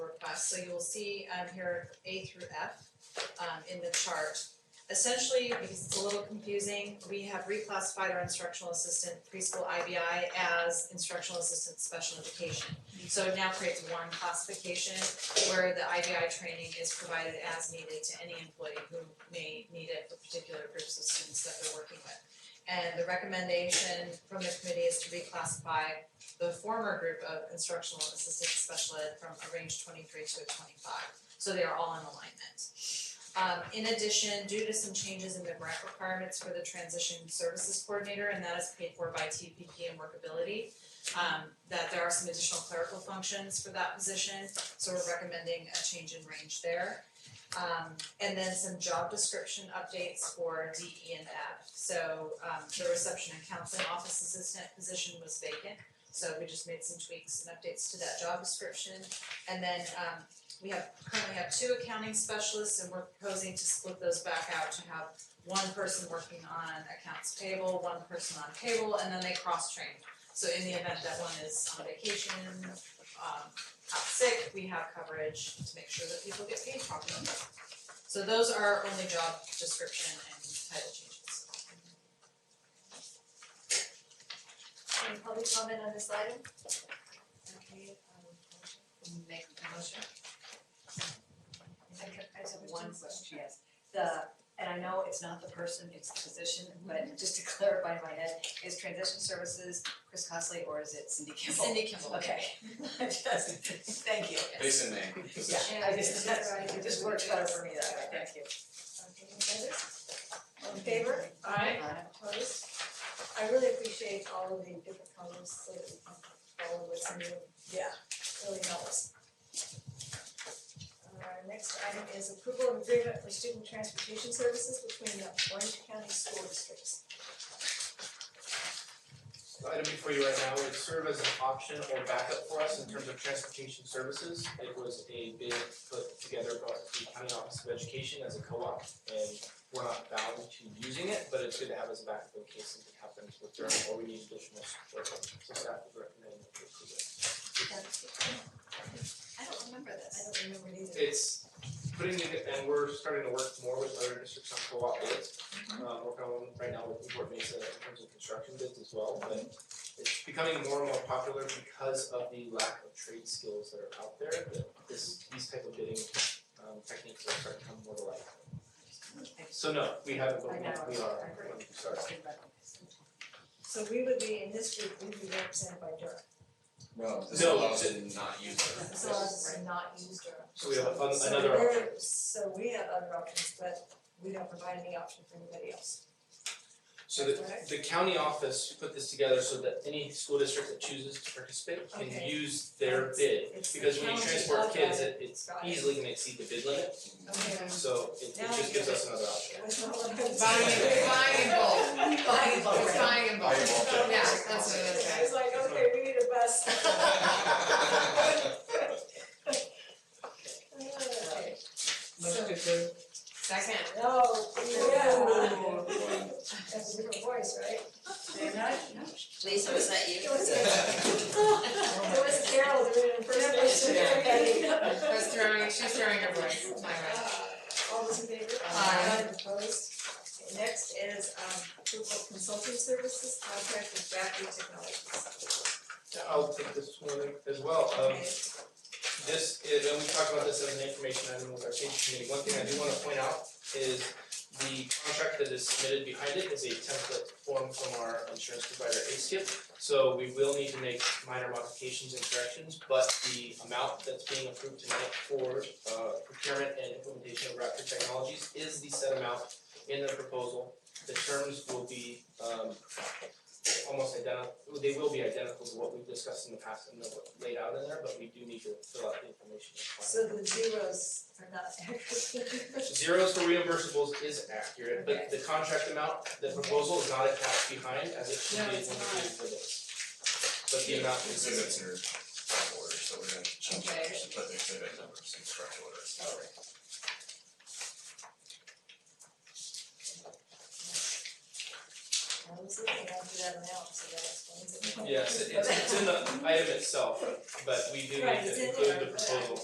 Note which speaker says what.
Speaker 1: F, so you will see on here A through F um, in the chart. Essentially, because it's a little confusing, we have reclassified our instructional assistant preschool IBI as instructional assistant special education. So it now creates one classification where the IBI training is provided as needed to any employee who may need it for particular groups of students that they're working with. And the recommendation from the committee is to reclassify the former group of instructional assistant special ed from a range twenty-three to a twenty-five, so they are all in alignment. Um, in addition, due to some changes in the grant requirements for the transition services coordinator, and that is paid for by TPP and workability, um, that there are some additional clerical functions for that position, so we're recommending a change in range there. Um, and then some job description updates for D, E, and F. So, um, the reception and counseling office assistant position was vacant, so we just made some tweaks and updates to that job description. And then, um, we have, currently have two accounting specialists, and we're proposing to split those back out to have one person working on accounts payable, one person on payroll, and then they cross-train. So in the event that one is on vacation, um, out sick, we have coverage to make sure that people get paid properly. So those are our only job description and title changes.
Speaker 2: Any public comment on this item? Okay,
Speaker 3: um, Make a motion.
Speaker 2: I can, I
Speaker 3: I
Speaker 2: just
Speaker 3: have one question, yes. The, and I know it's not the person, it's the position, but
Speaker 2: Mm-hmm.
Speaker 3: just to clarify in my head, is transition services Chris Costley or is it Cindy Kimball?
Speaker 1: Cindy Kimball.
Speaker 3: Okay, just, thank you.
Speaker 4: Base and name,
Speaker 3: Yeah,
Speaker 4: position.
Speaker 3: I just, that's, it just works better for me that way, thank you.
Speaker 2: Okay, any others? All in favor?
Speaker 1: Alright.
Speaker 2: Opposed? I really appreciate all of the different colors so that we can follow what's new.
Speaker 3: Yeah.
Speaker 2: Really helps. Our next item is approval of agreement for student transportation services between the Orange County School Districts.
Speaker 5: The item before you right now would serve as an option or backup for us in terms of transportation services. It was a bid put together by the County Office of Education as a co-op and we're not bound to using it, but it's good to have as a backup in case something happens with them or we need additional support. So staff would recommend that we approve it.
Speaker 2: I don't remember that. I don't remember it either.
Speaker 5: It's putting it, and we're starting to work more with other districts on co-op bids. Uh, working on right now with Newport Mesa in terms of construction bids as well, but it's becoming more and more popular because of the lack of trade skills that are out there, that this, these type of bidding um techniques are starting to come more to light. So no, we haven't, but
Speaker 3: I
Speaker 5: we
Speaker 3: know,
Speaker 5: we
Speaker 3: I
Speaker 5: are,
Speaker 3: heard.
Speaker 5: sorry.
Speaker 2: So we would be, in this group, we'd be represented by Durham.
Speaker 4: No, this
Speaker 5: No.
Speaker 4: allows it to not use it.
Speaker 2: So it's not used or.
Speaker 5: So we have an-
Speaker 2: So
Speaker 5: Um, another
Speaker 2: we're-
Speaker 5: option.
Speaker 2: So we have other options, but we don't provide any option for anybody else.
Speaker 5: So the the county office put this together so that any school district that chooses to participate can
Speaker 2: Okay.
Speaker 5: use their bid.
Speaker 2: It's the
Speaker 5: Because when you
Speaker 2: county
Speaker 5: transport
Speaker 2: of
Speaker 5: kids,
Speaker 2: it.
Speaker 5: it it's
Speaker 2: Got it.
Speaker 5: easily gonna exceed the bid limit,
Speaker 2: Okay.
Speaker 5: so it it
Speaker 2: Now I get
Speaker 5: just gives us another option.
Speaker 2: It was not what I was.
Speaker 4: Buying-
Speaker 6: buying bulk.
Speaker 3: Buying bulk.
Speaker 6: It's buying in bulk.
Speaker 4: Buying bulk.
Speaker 6: Yeah, that's what it is.
Speaker 2: I was like, okay, we need a bus. Okay.
Speaker 3: Motion to
Speaker 6: Second.
Speaker 2: No, yeah,
Speaker 3: approve.
Speaker 2: that's a different voice, right?
Speaker 7: Lisa, was that you?
Speaker 2: It was, it was Carol doing an impersonation of everybody.
Speaker 6: I was throwing, she's throwing her voice. Oh My bad.
Speaker 2: All those in favor?
Speaker 6: Aye.
Speaker 2: Aye, opposed? Okay, Next is um approval of consulting services contract with Jackie Technologies.
Speaker 5: Yeah, I'll take this one as well, um
Speaker 2: Okay.
Speaker 5: this is, and we talked about this as an information item with our safety committee, one thing I do wanna point out is the contract that is submitted behind it is a template form from our insurance provider, ASIP. So we will need to make minor modifications and corrections, but the amount that's being approved tonight for uh procurement and implementation of Raptor Technologies is the set amount in the proposal. The terms will be um almost identical, they will be identical to what we've discussed in the past and what laid out in there, but we do need to fill out the information
Speaker 2: So
Speaker 5: required.
Speaker 2: the zeros are not accurate.
Speaker 5: Zeros for reimbursables is accurate, but the contract amount, the proposal is not attached behind as it should
Speaker 6: No,
Speaker 5: be when we
Speaker 6: it's
Speaker 5: do for this. But the amount is.
Speaker 4: Exhibits are in order, so we're gonna change it, we should put the exhibit numbers in correct order.
Speaker 2: I was looking after that amount, so that explains it.
Speaker 5: Yes, it- it's it's in the item itself, but we do need
Speaker 2: Right, it's in
Speaker 5: to include
Speaker 2: there,
Speaker 5: the
Speaker 2: but I-
Speaker 5: proposal.